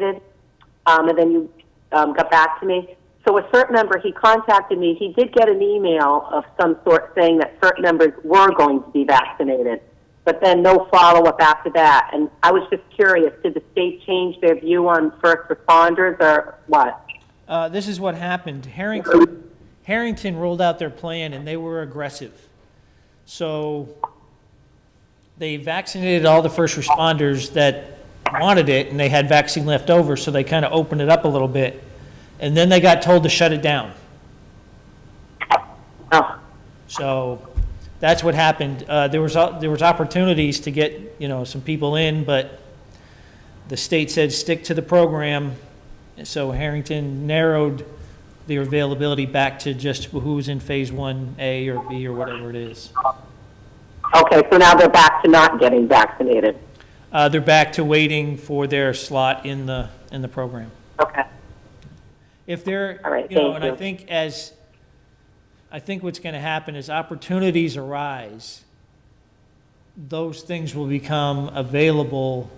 did, um, and then you um, got back to me. So a CERT member, he contacted me. He did get an email of some sort saying that CERT members were going to be vaccinated, but then no follow up after that. And I was just curious, did the state change their view on first responders or what? Uh, this is what happened. Harrington, Harrington rolled out their plan and they were aggressive. So they vaccinated all the first responders that wanted it and they had vaccine left over, so they kind of opened it up a little bit. And then they got told to shut it down. Oh, So that's what happened. Uh, There was, o- there was opportunities to get, you know, some people in, but the state said, stick to the program. And So Harrington narrowed the availability back to just who's in Phase 1A or B or whatever it is. okay. So now they're back to not getting vaccinated. Uh, They're back to waiting for their slot in the, in the program. Okay. If they're, All right, you know, thank and I you. think as, I think what's going to happen is opportunities arise. Those things will become available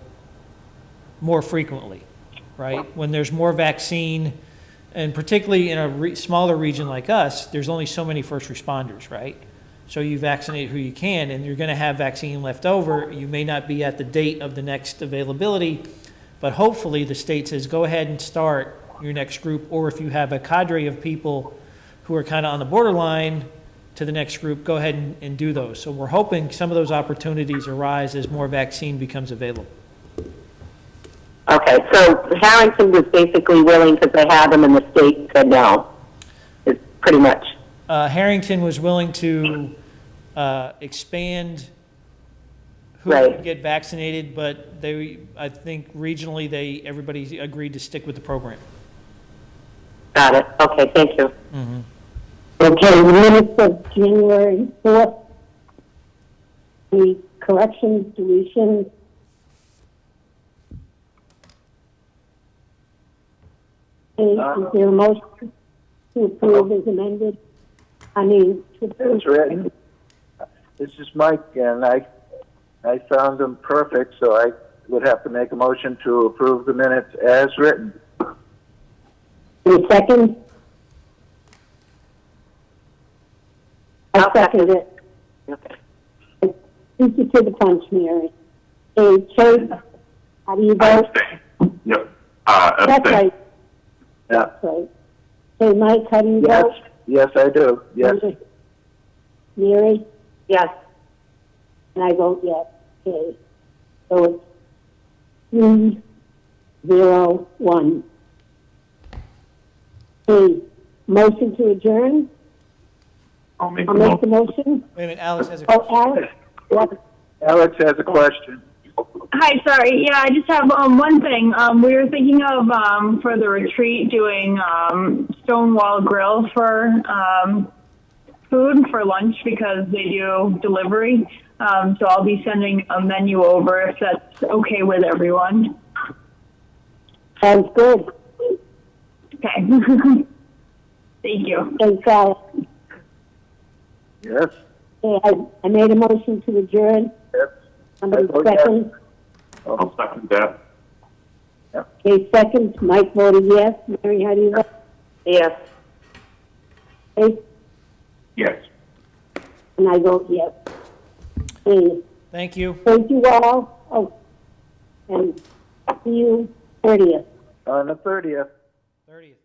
more frequently, right? When there's more vaccine, and particularly in a re- smaller region like us, there's only so many first responders, right? So you vaccinate who you can, and you're going to have vaccine left over. You may not be at the date of the next availability, but hopefully the state says, go ahead and start your next group, or if you have a cadre of people who are kind of on the borderline to the next group, go ahead and, and do those. So we're hoping some of those opportunities arise as more vaccine becomes available. Okay. So Harrington was basically willing because they had them and the state said no. It's pretty much. uh, Harrington was willing to uh, expand who Right. would get vaccinated, but they, I think regionally, they, everybody agreed to stick with the program. Got it. Okay. Thank you. Okay, the minutes of January 4th, the corrections, deletions, is Uh, is there a motion to approve as amended? I mean, to approve. That's right. This is Mike, and I, I found them perfect, so I would have to make a motion to approve the minutes as written. Any second? I second it. Okay. Beat you to the punch, Mary. Okay, Chase, how do you vote? Abstain. Yep. Uh, That's abstain. right, Yeah, right. Okay, Mike, how do you yes, vote? yes, I do, yes. Mary, Yes. and I vote yes. Okay, so it's three, zero, one. Okay, motion to adjourn? I'll make I'll the make the motion. motion. Wait a minute, Alex has a Oh, question. Alex? Yes. Alex has a question. Hi, sorry. Yeah, I just have um, one thing. Um, we were thinking of um, for the retreat doing um, Stonewall Grill for um, food for lunch because they do delivery. Um, so I'll be sending a menu over if that's okay with everyone. Sounds good. Okay. Thank you. Thanks, Alex. Yes, Okay, I, I made a motion to adjourn. yes, Somebody I vote yes. second? I'll second that. Okay, second. Mike voted yes. Mary, how do you vote? Yes. Okay, Yes. And I vote yes. Okay. Thank you. Thank you all. Oh, and see you 30th. on the thirtieth. 30th.